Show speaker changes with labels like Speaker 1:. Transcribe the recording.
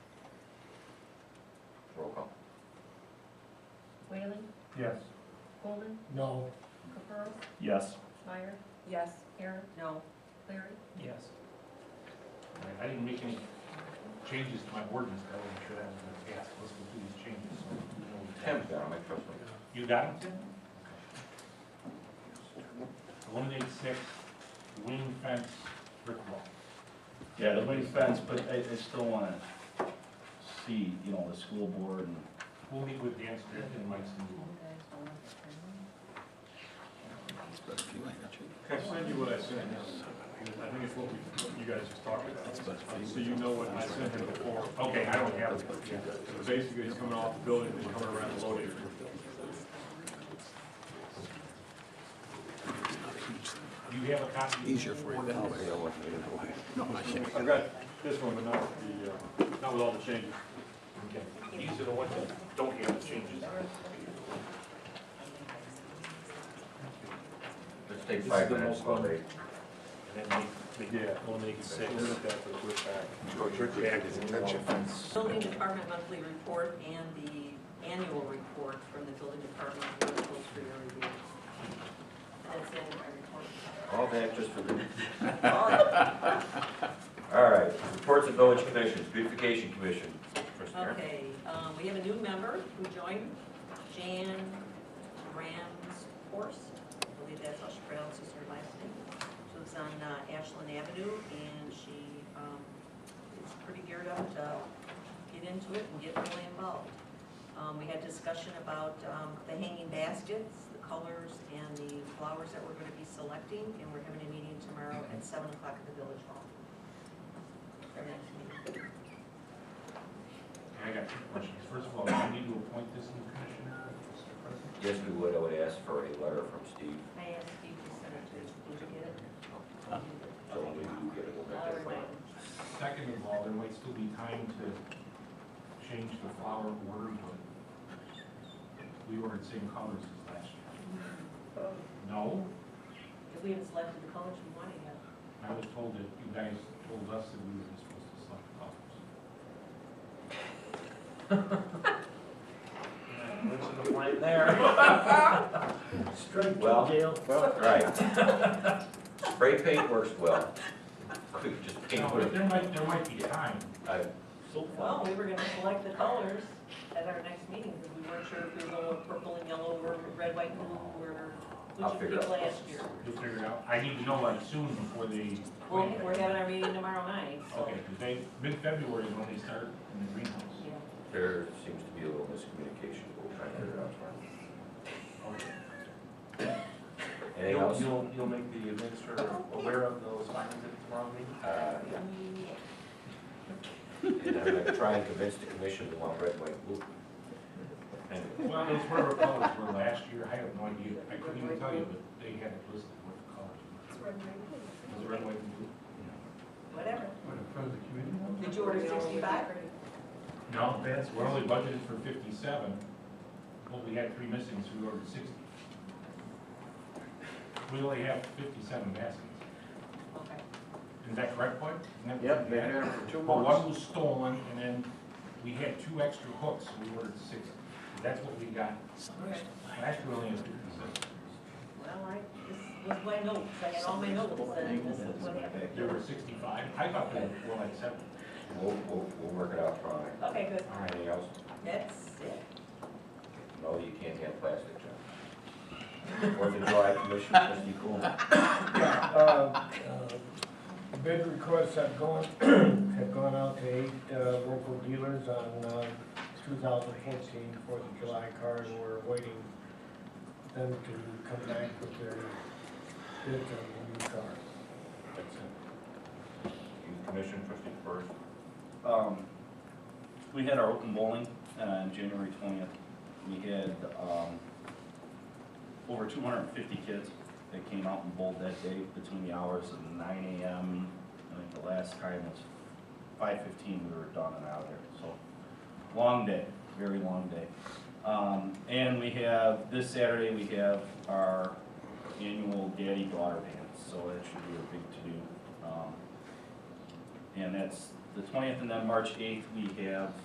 Speaker 1: Yes.
Speaker 2: Golden,
Speaker 3: No.
Speaker 2: Caprows,
Speaker 4: Yes.
Speaker 2: Meyer,
Speaker 5: Yes.
Speaker 2: Aaron,
Speaker 5: No.
Speaker 2: Larry,
Speaker 3: Yes.
Speaker 1: I didn't make any changes to my ordinance, but I wasn't sure that was gonna pass, let's go through these changes. so we know what we
Speaker 6: Tim's
Speaker 1: got.
Speaker 6: got my first one.
Speaker 1: You got it, Tim? Eliminate six, wing fence, brick wall.
Speaker 4: Yeah, the wing fence, but I, I still wanna see, you know, the school board and
Speaker 1: We'll meet with Dan Strickland and Mike Stengel.
Speaker 7: Can I send you what I sent him? I think it's what we, what you guys just talked about. So you know what I sent him before.
Speaker 1: Okay, I don't have it. Yeah.
Speaker 7: So Basically, he's coming off the building, and he's coming around the loading area.
Speaker 1: Do you have a copy? Easier for you
Speaker 7: I've got this one, but not the, uh, not with all the changes.
Speaker 1: These are the ones that don't have the changes.
Speaker 6: Let's take
Speaker 1: This is
Speaker 6: five
Speaker 1: the
Speaker 6: minutes
Speaker 1: most
Speaker 6: while
Speaker 1: fun.
Speaker 6: they.
Speaker 1: And then they, they
Speaker 7: Yeah.
Speaker 1: eliminate six.
Speaker 7: We'll look at that for the quick back.
Speaker 5: Building Department monthly report and the annual report from the building department goes for your review. That's the end of my
Speaker 6: All that just for the.
Speaker 5: report.
Speaker 6: All right, reports of village commissions, beautification commission. First Mayor.
Speaker 5: Okay, um, we have a new member who joined, Jan Ramshorst. I believe that's how she pronounces her last name. She lives on uh, Ashland Avenue, and she um, is pretty geared up to get into it and get really involved. Um, We had discussion about um, the hanging baskets, the colors, and the flowers that we're going to be selecting, and we're having a meeting tomorrow at seven o'clock at the Village Hall. Our next meeting.
Speaker 1: I got two questions. First of all, do you need to appoint this new commissioner, Mr. President?
Speaker 6: Yes, we would, I would ask for a letter from Steve,
Speaker 5: I asked you to send it to, did you get it?
Speaker 6: so when we do get it, we'll make
Speaker 5: I'll
Speaker 6: that
Speaker 5: remind
Speaker 6: appointment.
Speaker 5: him.
Speaker 1: Second of all, there might still be time to change the flower order, but we were in same colors as last year. No,
Speaker 5: Because we haven't selected the colors we wanted yet.
Speaker 1: I was told that you guys told us that we were supposed to select the colors.
Speaker 4: Listen to blame there.
Speaker 3: Strike
Speaker 6: Well-
Speaker 3: Dale.
Speaker 6: Right. Spray paint works well. We could just paint
Speaker 1: No, but
Speaker 6: with,
Speaker 1: there might, there might be time.
Speaker 6: I, Oh,
Speaker 4: So
Speaker 5: Well, we were gonna select the colors at our next meeting, because we weren't sure if we were going with purple and yellow or red, white, and blue, or
Speaker 6: I'll
Speaker 5: which we
Speaker 6: figure it
Speaker 5: did
Speaker 6: out.
Speaker 5: last year.
Speaker 1: You'll figure it out. I need to know like soon before they.
Speaker 5: Well, we're having our meeting tomorrow night, so.
Speaker 1: Okay, because they, mid-February is when they start in the greenhouse.
Speaker 5: yeah.
Speaker 6: there seems to be a little miscommunication, we'll try and figure it out tomorrow.
Speaker 1: Okay.
Speaker 6: Anything else?
Speaker 8: You'll, you'll make the administrator aware of those findings at tomorrow meeting?
Speaker 6: Uh,
Speaker 5: Yeah.
Speaker 6: And I'm gonna try and convince the commission we want red, white, blue. Anyway.
Speaker 1: Well, it's whatever colors were last year, I have no idea, I couldn't even tell you, but they had it listed what the colors were. Was it red, white, and blue?
Speaker 5: Whatever.
Speaker 1: What, in front of the community
Speaker 5: Did you order sixty-five?
Speaker 1: No, that's, we're only budgeted for fifty-seven, but we had three missing, so we ordered sixty. We only have fifty-seven baskets,
Speaker 5: Okay.
Speaker 1: is that correct, Boyd? Isn't that what
Speaker 8: Yep,
Speaker 1: we
Speaker 8: they've
Speaker 1: had?
Speaker 8: had it for two
Speaker 1: But
Speaker 8: months.
Speaker 1: one was stolen, and then we had two extra hooks, so we ordered sixty, that's what we got,
Speaker 5: Okay.
Speaker 1: last year we only had fifty-seven.
Speaker 5: Well, I, this was my notes, I had all my notes, and this is what happened.
Speaker 1: There were sixty-five, I thought there were like seven.
Speaker 6: We'll, we'll, we'll work it out probably.
Speaker 5: Okay, good.
Speaker 6: Anything else?
Speaker 5: That's it.
Speaker 6: No, you can't have plastic, John. Fourth of July commission, trustee Coleman.
Speaker 3: Uh, uh, Bid requests have gone, have gone out to eight uh, local dealers on uh, 2014 Fourth of July cars. We're waiting them to come back with their bids on the new cars.
Speaker 6: That's it. Youth commission, trustee first.
Speaker 4: Um, we had our open bowling on January twentieth. We had, um, over two hundred and fifty kids that came out and bowled that day between the hours of nine AM. I think the last time was five fifteen, we were done and out of there, so, long day, very long day. Um, and we have, this Saturday, we have our annual daddy-daughter dance, so that should be a big to-do. Um, and that's the twentieth, and then March eighth, we have